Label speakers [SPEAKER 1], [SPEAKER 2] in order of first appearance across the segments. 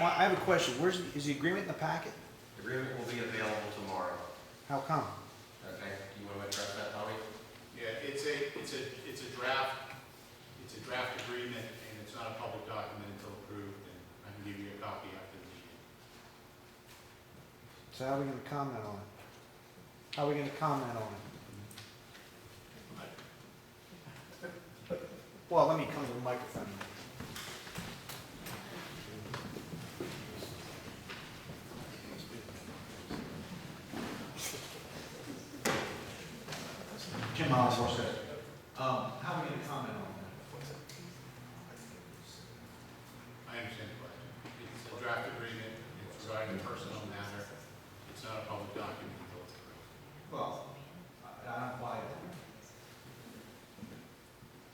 [SPEAKER 1] Well, I have a question. Where's, the- is the agreement in the packet?
[SPEAKER 2] The Agreement will be available tomorrow.
[SPEAKER 1] How come?
[SPEAKER 2] Okay, you want to address that, Tommy?
[SPEAKER 3] Yeah, it's a, it's a, it's a draft, it's a draft agreement, and it's not a public document until approved, and I can give you a copy after the meeting.
[SPEAKER 1] So how are we gonna comment on it? How are we gonna comment on it? Well, let me come to the microphone.
[SPEAKER 4] Jim Miles, Horsehead. Um, how are we gonna comment on that?
[SPEAKER 3] I understand the question. It's a draft agreement, it's regarding a personal matter, it's not a public document until it's approved.
[SPEAKER 4] Well, I, I don't buy it.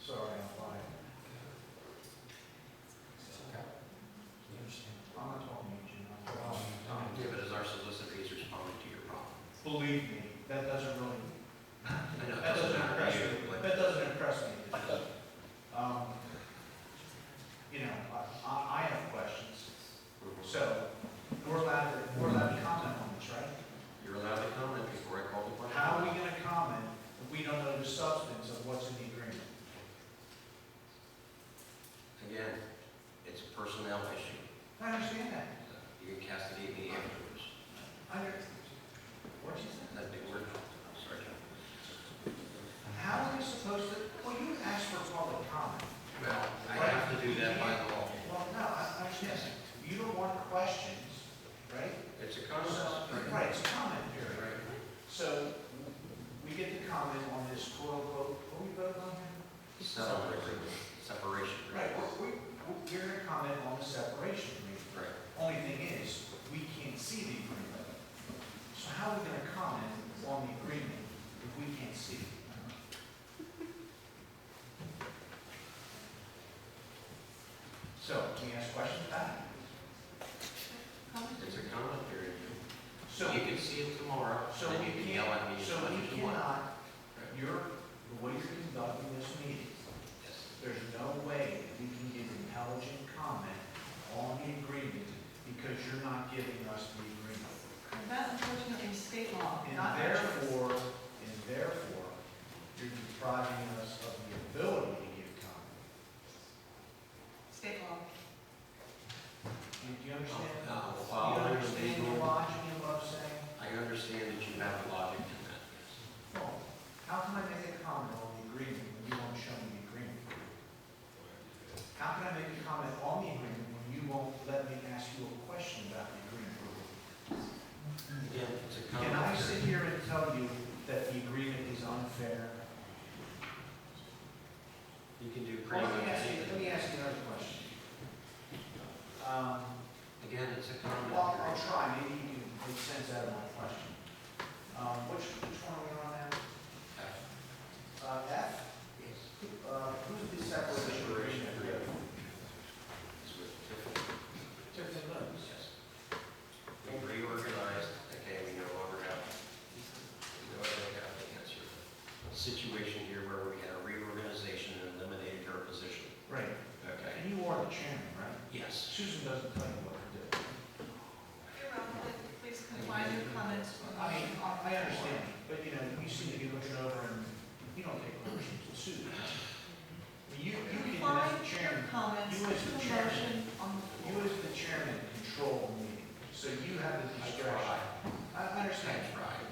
[SPEAKER 4] Sorry, I don't buy it. I'm not talking to you, Jim, I'm talking to Tom.
[SPEAKER 2] Give it as our solicitor, he's responding to your problem.
[SPEAKER 4] Believe me, that doesn't really,
[SPEAKER 2] I know it
[SPEAKER 4] that doesn't impress me,
[SPEAKER 2] you, but
[SPEAKER 4] that doesn't impress me. Um, you know, I- I, I have questions, so we're allowed, to- we're allowed to comment on this, right?
[SPEAKER 2] You're allowed to comment before I call the question.
[SPEAKER 4] How are we gonna comment if we don't know the substance of what's in the agreement?
[SPEAKER 2] Again, it's a personnel issue.
[SPEAKER 4] I understand that.
[SPEAKER 2] You can castigate me afterwards.
[SPEAKER 4] I understand. What'd you say?
[SPEAKER 2] That's a big word. I'm sorry, John.
[SPEAKER 4] How are we supposed to, well, you asked for public comment.
[SPEAKER 2] Well, I have to do that by law.
[SPEAKER 4] Well, no, I, I understand. You don't want questions, right?
[SPEAKER 2] It's a
[SPEAKER 4] So-
[SPEAKER 2] contest.
[SPEAKER 4] Right, it's comment period.
[SPEAKER 2] Right.
[SPEAKER 4] So we get to comment on this quote unquote, what we vote on here?
[SPEAKER 2] Settlement agreement, separation.
[SPEAKER 4] Right,
[SPEAKER 2] agreement.
[SPEAKER 4] we, we, you're gonna comment on the separation agreement.
[SPEAKER 2] Right.
[SPEAKER 4] Only thing is, we can't see the agreement. So how are we gonna comment on the agreement if we can't see it? So, can we ask questions back?
[SPEAKER 2] It's a comment period.
[SPEAKER 4] So,
[SPEAKER 2] You can see it tomorrow,
[SPEAKER 4] so
[SPEAKER 2] and you
[SPEAKER 4] we
[SPEAKER 2] can yell at me
[SPEAKER 4] can't,
[SPEAKER 2] as
[SPEAKER 4] so
[SPEAKER 2] much as
[SPEAKER 4] we
[SPEAKER 2] you want.
[SPEAKER 4] cannot, you're, the way you're conducting this meeting,
[SPEAKER 2] Yes.
[SPEAKER 4] there's no way we can give intelligent comment on the agreement because you're not giving us the agreement.
[SPEAKER 5] That unfortunately is state law, not
[SPEAKER 4] And
[SPEAKER 5] ours.
[SPEAKER 4] therefore, and therefore, you're depriving us of the ability to give comment.
[SPEAKER 5] State law.
[SPEAKER 4] Do you understand?
[SPEAKER 2] Oh, no,
[SPEAKER 4] Do
[SPEAKER 2] well,
[SPEAKER 4] you understand
[SPEAKER 2] legal-
[SPEAKER 4] the logic of what I'm saying?
[SPEAKER 2] I understand that you have logic in that, yes.
[SPEAKER 4] Well, how can I make a comment on the agreement when you won't show me the agreement? How can I make a comment on the agreement when you won't let me ask you a question about the agreement?
[SPEAKER 2] Again, it's a
[SPEAKER 4] Can I sit
[SPEAKER 2] comment.
[SPEAKER 4] here and tell you that the agreement is unfair?
[SPEAKER 2] You can do
[SPEAKER 4] Well,
[SPEAKER 2] pretty
[SPEAKER 4] let
[SPEAKER 2] much
[SPEAKER 4] me ask you, let me
[SPEAKER 2] anything.
[SPEAKER 4] ask you another question. Um,
[SPEAKER 2] Again, it's a comment.
[SPEAKER 4] Well, I'll
[SPEAKER 2] period.
[SPEAKER 4] try, maybe you can make sense out of my question. Um, which, which one are we on now?
[SPEAKER 2] F.
[SPEAKER 4] Uh, F? Uh, who's the separation
[SPEAKER 2] Separation
[SPEAKER 4] agreement?
[SPEAKER 2] agreement. It's with Tiffany.
[SPEAKER 4] Tiffany Lewis.
[SPEAKER 2] Yes. We reorganized, okay, we no longer have, we no longer have the answer. Situation here where we had a reorganization and eliminated her position,
[SPEAKER 4] Right,
[SPEAKER 2] okay?
[SPEAKER 4] and you are the chairman, right?
[SPEAKER 2] Yes.
[SPEAKER 4] Susan doesn't tell you what to do.
[SPEAKER 5] You're wrong, but please confine your comments.
[SPEAKER 4] I mean, I, I understand, but you know, you seem to be looking over and you don't take questions from Susan. I mean, You, Mm-hmm. you can,
[SPEAKER 5] Confine
[SPEAKER 4] as the
[SPEAKER 5] your
[SPEAKER 4] chairman,
[SPEAKER 5] comments to
[SPEAKER 4] you
[SPEAKER 5] the
[SPEAKER 4] as the chairman.
[SPEAKER 5] motion on the
[SPEAKER 4] you
[SPEAKER 5] floor.
[SPEAKER 4] as the chairman control the meeting, so you have the
[SPEAKER 2] I
[SPEAKER 4] discretion.
[SPEAKER 2] tried,
[SPEAKER 4] I I
[SPEAKER 2] I
[SPEAKER 4] understand.
[SPEAKER 2] tried.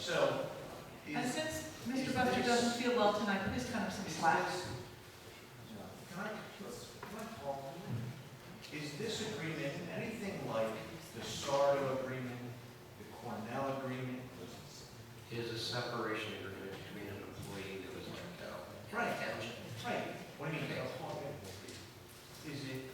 [SPEAKER 4] So, is,
[SPEAKER 5] And
[SPEAKER 4] is this,
[SPEAKER 5] since Mr. Buster doesn't feel well tonight, please cut him some
[SPEAKER 4] can
[SPEAKER 5] slack.
[SPEAKER 4] I, let's- can I call? Is this agreement anything like the Sardo agreement, the Cornell agreement?
[SPEAKER 2] It is a separation agreement between an employee that was let go. and the
[SPEAKER 4] Right.
[SPEAKER 2] township.
[SPEAKER 4] Right, what do you mean? Is it,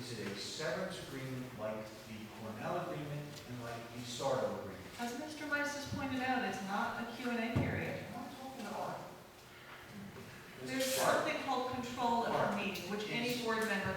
[SPEAKER 4] is it a severance agreement like the Cornell agreement and like the Sardo agreement?
[SPEAKER 5] As Mr. Weiss has pointed out, it's not a Q and A period.
[SPEAKER 4] I'm not talking about.
[SPEAKER 5] There's something called control of our meeting, which any board member